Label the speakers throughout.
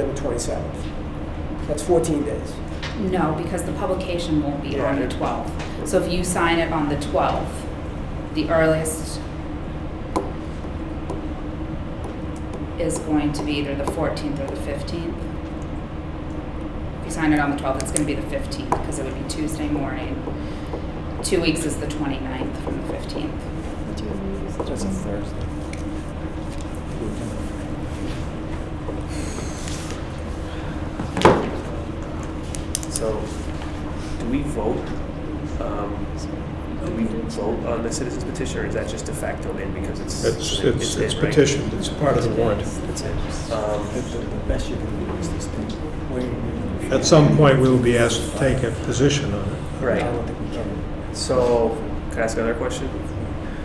Speaker 1: on the 27th. That's 14 days.
Speaker 2: No, because the publication won't be on the
Speaker 1: Yeah.
Speaker 2: 12th. So if you sign it on the 12th, the earliest is going to be either the 14th or the 15th. If you sign it on the 12th, it's going to be the 15th because it would be Tuesday morning. Two weeks is the 29th from the 15th.
Speaker 3: That's a Thursday.
Speaker 4: So, do we vote? um, Do we vote on the citizens petition, or is that just de facto in because it's?
Speaker 5: It's, it's, it's
Speaker 4: in, right?
Speaker 5: petitioned, it's part of the warrant.
Speaker 4: It's in. Um,
Speaker 3: The, the- the best you can do is this thing. Wait, wait, wait.
Speaker 5: At some point, we will be asked to take a position on it.
Speaker 3: I
Speaker 4: Right,
Speaker 3: don't think we can.
Speaker 4: so, can I ask another question?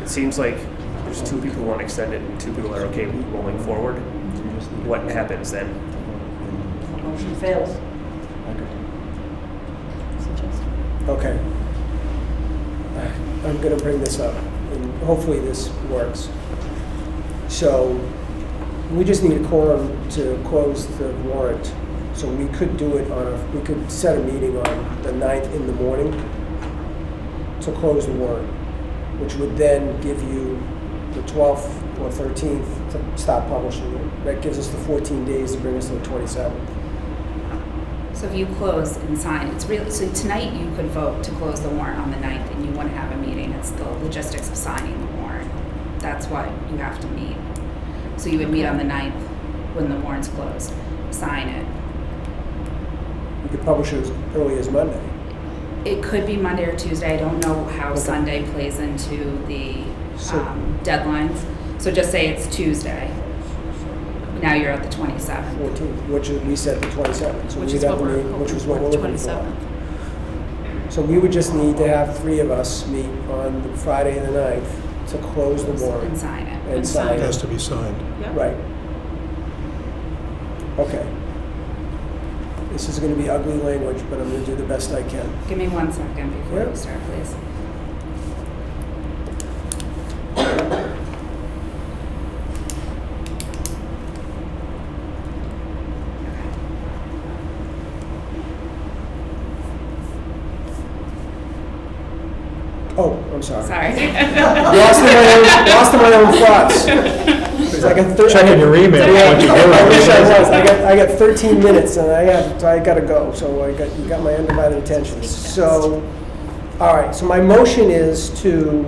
Speaker 4: It seems like there's two people who want to extend it and two people are okay with rolling forward.
Speaker 3: We just need to-
Speaker 4: What happens then?
Speaker 6: Motion fails.
Speaker 3: Okay.
Speaker 1: Okay. I'm going to bring this up, and hopefully this works. So we just need a quorum to close the warrant. So we could do it on, a we could set a meeting on the 9th in the morning to close the warrant, which would then give you the 12th or 13th to stop publishing it. That gives us the 14 days to bring us to the 27th.
Speaker 2: So if you close and sign, it's really, so tonight you could vote to close the warrant on the 9th and you wouldn't have a meeting. It's the logistics of signing the warrant. That's what you have to meet. So you would meet on the 9th when the warrant's closed, sign it.
Speaker 1: You could publish it as early as Monday.
Speaker 2: It could be Monday or Tuesday. I don't know how Sunday plays into the
Speaker 1: So-
Speaker 2: um, deadlines. So just say it's Tuesday. Now you're at the 27th.
Speaker 1: 14th, which is- we set the 27th. So
Speaker 7: Which
Speaker 1: we
Speaker 7: is
Speaker 1: got
Speaker 7: what
Speaker 1: the
Speaker 7: we're
Speaker 1: meeting- Which
Speaker 7: hoping
Speaker 1: was what
Speaker 7: for,
Speaker 1: we're
Speaker 7: the
Speaker 1: looking for.
Speaker 7: 27th.
Speaker 1: So we would just need to have three of us meet on the Friday the 9th to close the
Speaker 2: And
Speaker 1: warrant
Speaker 2: sign it.
Speaker 1: and
Speaker 7: And sign
Speaker 1: sign
Speaker 5: It has
Speaker 1: it.
Speaker 5: to be signed.
Speaker 7: Yeah.
Speaker 1: Right. Okay. This is going to be ugly language, but I'm going to do the best I can.
Speaker 2: Give me one second before
Speaker 1: Yeah.
Speaker 2: you start, please.
Speaker 1: Oh, I'm sorry.
Speaker 2: Sorry.
Speaker 1: Lost in my own, lost in my own thoughts. It's like a thir-
Speaker 5: Checking your email.
Speaker 1: Yeah,
Speaker 5: what you hear.
Speaker 1: I wish I was. I got, I got 13 minutes and I got, I gotta go, so I got, you got my undivided attention. So, all right, so my motion is to,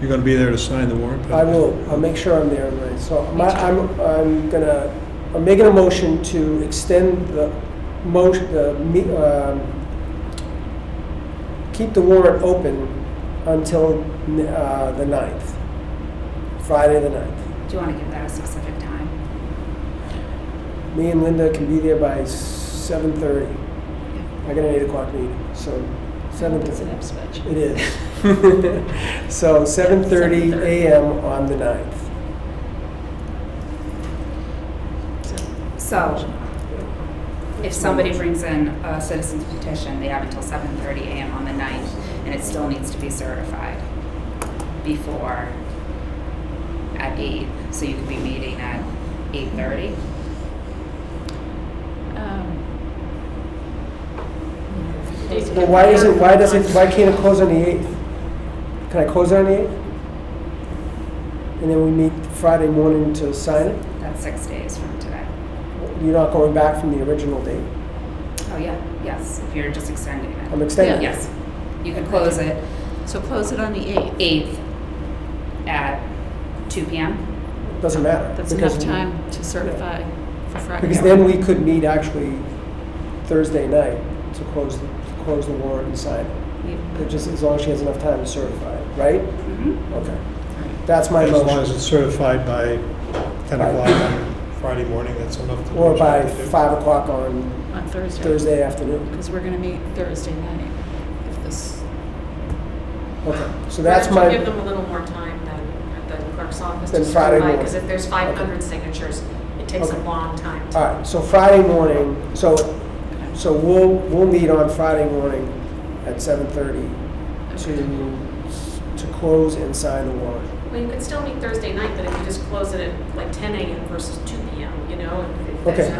Speaker 5: You're gonna be there to sign the warrant?
Speaker 1: I will, I'll make sure I'm there, right? So my, I'm, I'm gonna, I'm making a motion to extend the motion, the, me- um, keep the warrant open until, uh, the 9th, Friday the 9th.
Speaker 2: Do you want to give that a specific time?
Speaker 1: Me and Linda can be there by 7:30. I got an eight o'clock meeting, so seven
Speaker 6: It's an
Speaker 1: thirty.
Speaker 6: Ipswich.
Speaker 1: It is. So seven thirty
Speaker 6: 7:30.
Speaker 1: AM on the ninth.
Speaker 2: So, if somebody brings in a citizen's petition, they have until seven thirty AM on the 9th, and it still needs to be certified before at eight, so you could be meeting at eight thirty.
Speaker 7: Um,
Speaker 1: Well, why is it, why does it, why can't it close on the eighth? Can I close on the eighth? And then we meet Friday morning to sign it?
Speaker 2: That's six days from today.
Speaker 1: You're not going back from the original date?
Speaker 2: Oh, yeah, yes, if you're just extending it.
Speaker 1: I'm extending it.
Speaker 2: Yes, you could close it
Speaker 7: So close it on the 8th.
Speaker 2: eighth at two PM.
Speaker 1: Doesn't matter.
Speaker 7: That's
Speaker 1: because
Speaker 7: enough
Speaker 1: we-
Speaker 7: time to certify for Friday.
Speaker 1: Because then we could meet actually Thursday night to close, the to close the warrant and sign it. It just, as long as she has enough time to certify it, right?
Speaker 2: Mhm.
Speaker 1: Okay. That's my
Speaker 5: As long as
Speaker 1: motion.
Speaker 5: it's certified by ten
Speaker 1: By-
Speaker 5: o'clock on Friday morning, that's enough. to-
Speaker 1: Or by five o'clock on
Speaker 7: On Thursday.
Speaker 1: Thursday afternoon.
Speaker 7: Because we're going to meet Thursday night. If this.
Speaker 1: Okay, so that's my,
Speaker 8: Give them a little more time than at the clerk's office.
Speaker 1: Than Friday morning.
Speaker 8: Because if there's 500 signatures, it takes a
Speaker 1: Okay.
Speaker 8: long time to
Speaker 1: all right, so Friday morning, so, so we'll, we'll meet on Friday morning at seven thirty to, to close and sign the warrant.
Speaker 8: Well, you could still meet Thursday night, but if you just close it at like ten AM versus two PM, you know, it- There's
Speaker 1: Okay.
Speaker 8: no-